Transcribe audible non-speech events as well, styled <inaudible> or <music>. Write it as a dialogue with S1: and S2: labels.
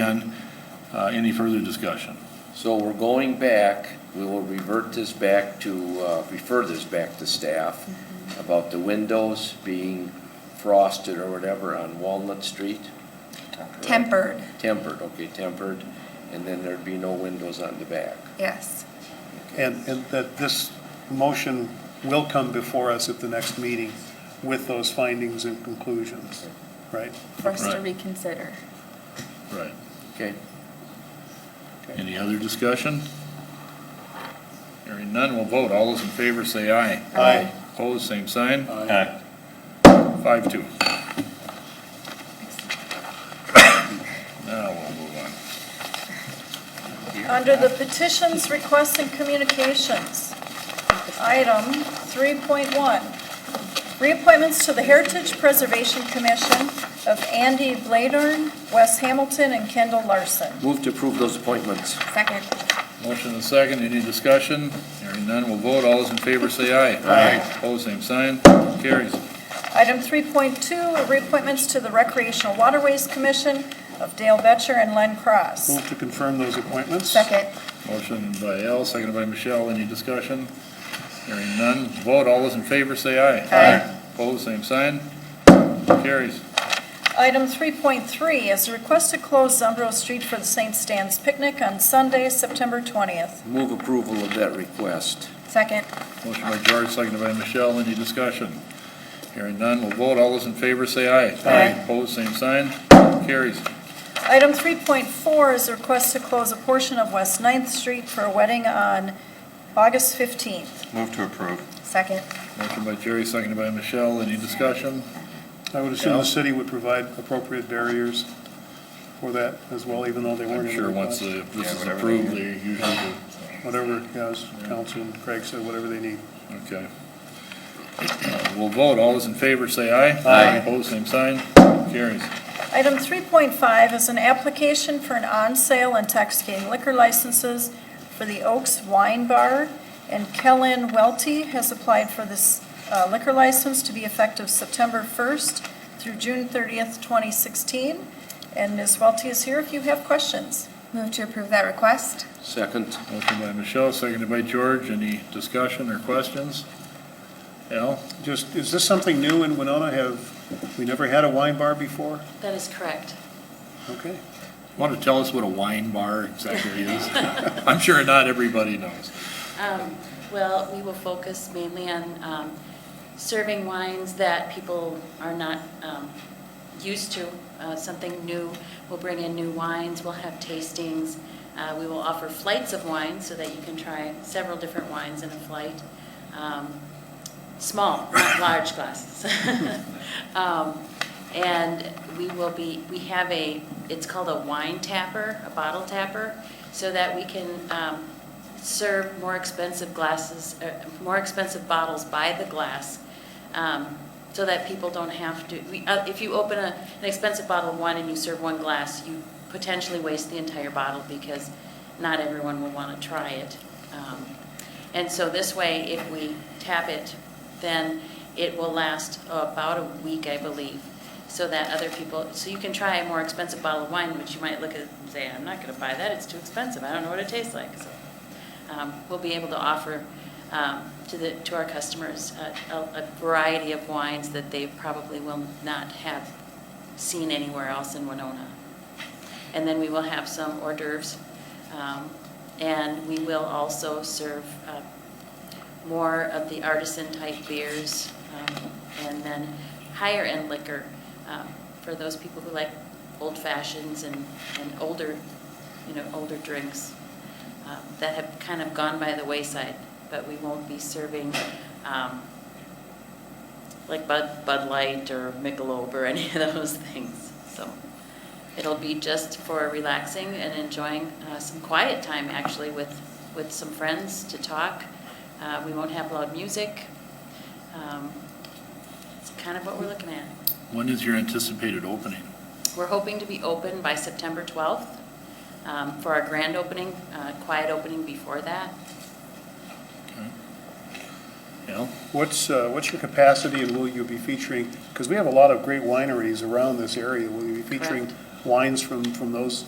S1: And uh, any further discussion?
S2: So we're going back, we will revert this back to, uh, refer this back to staff about the windows being frosted or whatever on Walnut Street?
S3: Tempered,
S2: Tempered, okay, tempered, and then there'd be no windows on the back.
S3: yes.
S4: And, and that this motion will come before us at the next meeting with those findings and conclusions, right?
S3: For us to
S1: Right.
S3: reconsider.
S1: Right.
S2: Okay,
S1: Any other discussion? Hearing none, we'll vote. All those in favor say aye.
S4: Aye.
S1: Opposed, same sign.
S4: Aye.
S1: Five, two. Now we'll move
S5: Under the petitions, requests, and communications, item 3.1, reappointments to the Heritage Preservation Commission of Andy Bladern, Wes Hamilton, and Kendall Larson.
S2: move to approve those appointments.
S3: Second.
S1: on. Motion and second, any discussion? Hearing none, we'll vote. All those in favor say aye. Aye. Opposed, same sign. Carries.
S5: Item 3.2, reappointments to the Recreational Waterways Commission of Dale Betcher and Len Cross.
S4: Move to confirm those appointments.
S3: Second.
S1: Motion by Al, seconded by Michelle. Any discussion? Hearing none, vote. All those in favor say aye.
S3: Aye.
S1: Opposed, same sign. Carries.
S5: Item 3.3 is a request to close Zumbro Street for the St. Stan's Picnic on Sunday, September 20th.
S2: Move approval of that request.
S3: Second.
S1: Motion by George, seconded by Michelle. Any discussion? Hearing none, we'll vote. All those in favor say aye.
S3: Aye.
S1: Opposed, same sign. Carries.
S5: Item 3.4 is a request to close a portion of West 9th Street for a wedding on August 15th.
S6: Move to approve.
S3: Second.
S1: Motion by Jerry, seconded by Michelle. Any discussion?
S4: I would assume the city would provide appropriate barriers for that as well, even though they weren't
S1: I'm
S4: in the
S1: sure once
S4: request.
S1: the- this
S6: Yeah,
S1: is
S6: whatever
S1: approved,
S6: they
S1: they usually do.
S4: Whatever, yeah, as Council and Craig said, whatever they need.
S1: Okay. Uh, We'll vote. All those in favor say aye.
S2: Aye.
S1: Opposed, same sign. Carries.
S5: Item 3.5 is an application for an on-sale and tax-gain liquor licenses for the Oaks Wine Bar, and Kellen Welty has applied for this uh, liquor license to be effective September 1st through June 30th, 2016. And Ms. Welty is here if you have questions.
S3: Move to approve that request.
S2: Second,
S1: Motion by Michelle, seconded by George. Any discussion or questions? Al?
S4: Just, is this something new in Winona? Have, we never had a wine bar before?
S7: That is correct.
S4: Okay.
S1: Want to tell us what a wine bar exactly is? I'm sure not everybody knows.
S7: Um, Well, we will focus mainly on um, serving wines that people are not um, used to, uh, something new. We'll bring in new wines, we'll have tastings. Uh, We will offer flights of wine so that you can try several different wines in a flight. Um, Small, not large glasses. <laughs> Um, And we will be, we have a, it's called a wine tapper, a bottle tapper, so that we can um, serve more expensive glasses, uh, more expensive bottles by the glass, um, so that people don't have to, we- uh, if you open a- an expensive bottle of wine and you serve one glass, you potentially waste the entire bottle because not everyone will want to try it. Um, And so this way, if we tap it, then it will last about a week, I believe, so that other people, so you can try a more expensive bottle of wine, which you might look at and say, I'm not going to buy that, it's too expensive, I don't know what it tastes like. So um, We'll be able to offer um, to the, to our customers uh, a a variety of wines that they probably will not have seen anywhere else in Winona. And then we will have some hors d'oeuvres. um, And we will also serve uh, more of the artisan-type beers um, and then higher-end liquor um, for those people who like old fashions and and older, you know, older drinks um, that have kind of gone by the wayside, but we won't be serving um, like Bud, Bud Light or Michelob or <laughs> any of those things. So it'll be just for relaxing and enjoying uh, some quiet time, actually, with, with some friends to talk. Uh, We won't have loud music. Um, It's kind of what we're looking at.
S1: When is your anticipated opening?
S7: We're hoping to be open by September 12th um, for our grand opening, uh, quiet opening before that.
S1: Al?
S4: What's, uh, what's your capacity and will you be featuring, because we have a lot of great wineries around this area, will you be featuring wines from, from those